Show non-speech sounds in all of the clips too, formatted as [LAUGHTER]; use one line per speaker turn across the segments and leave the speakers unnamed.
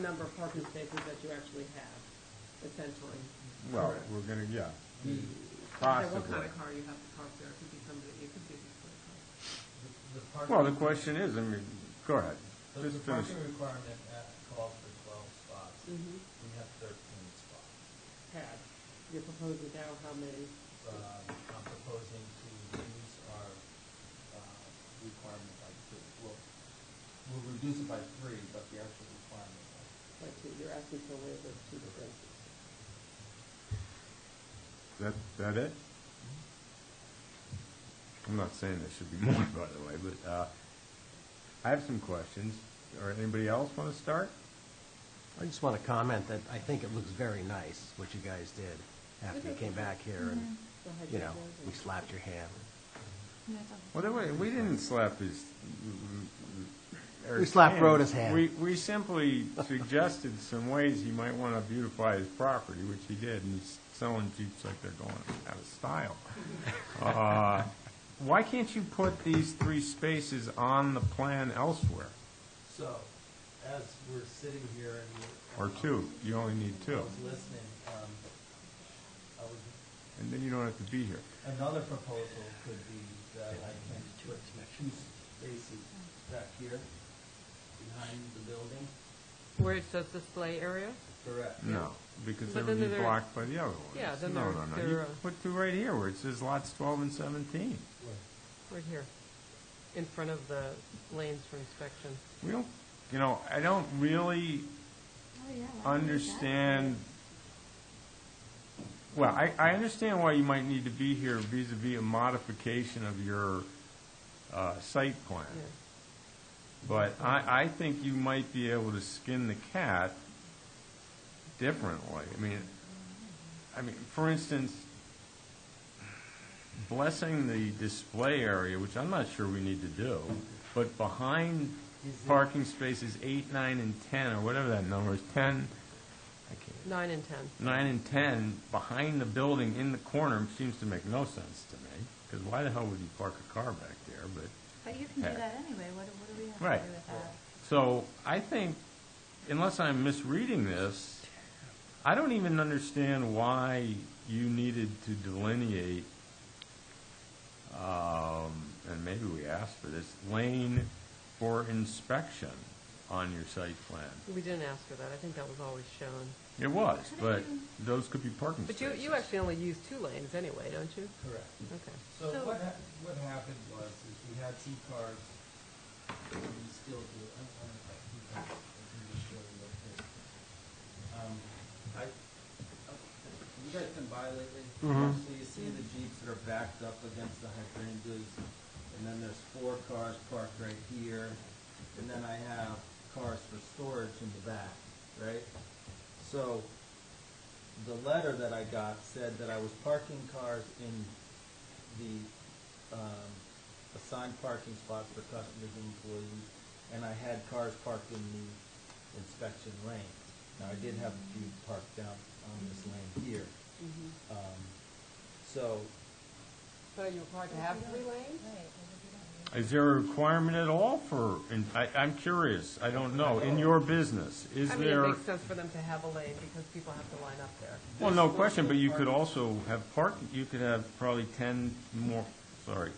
number of parking spaces that you actually have, essentially.
Well,
Correct.
we're gonna, yeah,
So
possibly.
What kind of car you have to park there, it could be somebody, it could be this kind of car.
Well, the question is, I mean, go ahead,
The
just
the
finish.
parking requirement at calls for twelve spots.
Mhm.
We have thirteen spots.
Had, you're proposing now how many?
Um, I'm proposing to reduce our uh, requirement by two. Well, we'll reduce it by three, but the actual requirement by
Like, two- you're asking for a waiver of two differences.
That, that it?
Mm-hmm.
I'm not saying there should be [LAUGHS] more, by the way, but, uh, I have some questions, or anybody else wanna start?
I just want to comment that I think it looks very nice, what you guys did, after
Mm-hmm.
you came back here and,
Go ahead,
you know,
Jason.
we slapped your hand.
Well, there wa- we didn't slap his.
We slapped
Eric's
Rhoda's hand.
We, we simply suggested some ways he might want to beautify his property, which he did, and he's selling Jeeps like they're going out of style. Uh, Why can't you put these three spaces on the plan elsewhere?
So, as we're sitting here and. we're-
Or two, you only need
I
two,
was listening, um, I was,
and then you don't have to be here.
another proposal could be that I can put two spaces back here, behind the building.
Where it says display area?
Correct.
No, because they
But
would be
then they're-
blocked by the other ones.
Yeah, then
No,
they're-
no, no, you
they're, uh,
put two right here where it says lots twelve and seventeen.
Right here, in front of the lanes for inspection.
We don't, you know, I don't really
Oh,
understand, well, I, I understand why you might need to be here vis-à-vis a modification of your uh, site plan.
Uh-huh.
Yeah.
But I, I think you might be able to skin the cat differently. I mean, I mean, for instance, blessing the display area, which I'm not sure we need to do, but behind
Is it-
parking spaces eight, nine, and ten, or whatever that number is, ten, I can't,
Nine and 10.
nine and ten behind the building in the corner seems to make no sense to me, because why the hell would you park a car back there, but,
But you can do
Yeah.
that anyway, what, do- what do we have
Right.
to do with that?
so I think, unless I'm misreading this, I don't even understand why you needed to delineate, um, and maybe we asked for this, lane for inspection on your site plan.
We didn't ask for that, I think that was always shown.
It was, but those could be parking
But you,
spaces.
you actually only use two lanes anyway, don't you?
Correct.
Mm-hmm.
Okay.
So
So-
what, hap- what happened was, is we had two cars, and we still do, I don't know if I can, I can just show you what this. Um, I, you guys been by lately?
Mhm.
So you see the Jeeps that are backed up against the hydrangeas, and then there's four cars parked right here, and then I have cars for storage in the back, right? So, the letter that I got said that I was parking cars in the um, assigned parking spots for customers and employees, and I had cars parked in the inspection lane. Now, I did have a few parked down on this lane here. Um, So,
So you're required to have three lanes?
Right, because if you don't use
Is there a requirement at all for, and I, I'm curious, I don't know, in your business, is
I mean, it
there?
makes sense for them to have a lane because people have to line up there.
Well, no question, but you could also have park, you could have probably ten more, sorry.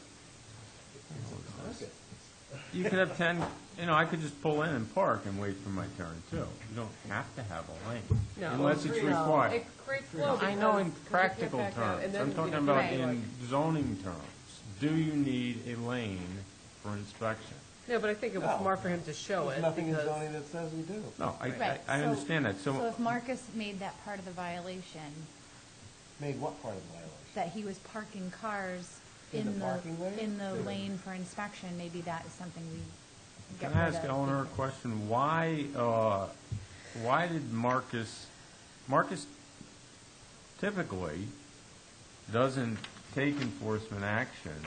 You could have ten, you know, I could just pull in and park and wait for my turn too. You don't have to have a lane,
No.
unless it's
No.
required.
It creates flow.
I know
because- 'cause you
in
can't
practical
back out, and
terms,
then,
I'm
you know,
talking about
people
in zoning terms. Do you need a lane for inspection?
like- No, but I think it was
No.
smart for him to show it
Nothing in
because,
zoning that says we do.
No, I- I,
Right,
I
so-
understand that,
So if Marcus made that part of the violation,
Made what part of the violation?
that he was parking cars
In the
in the,
parking lane?
in the lane for inspection, maybe that is something we get
Can
rid
I
of.
ask Eleanor a question? Why, uh, why did Marcus, Marcus typically doesn't take enforcement action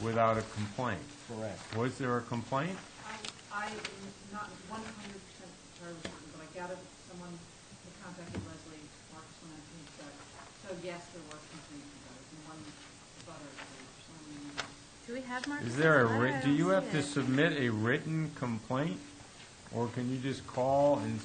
without a complaint.
Correct.
Was there a complaint?
I, I am not one hundred percent sure, of something, but I gathered someone who contacted Leslie Marcus when I think that, so yes, there was complaints about it, and one butter, someone,
Do we have Marcus?
Is there a,
letter? I
writ- do
don't
you
see
have to
it.
submit a written complaint? Or can you just call and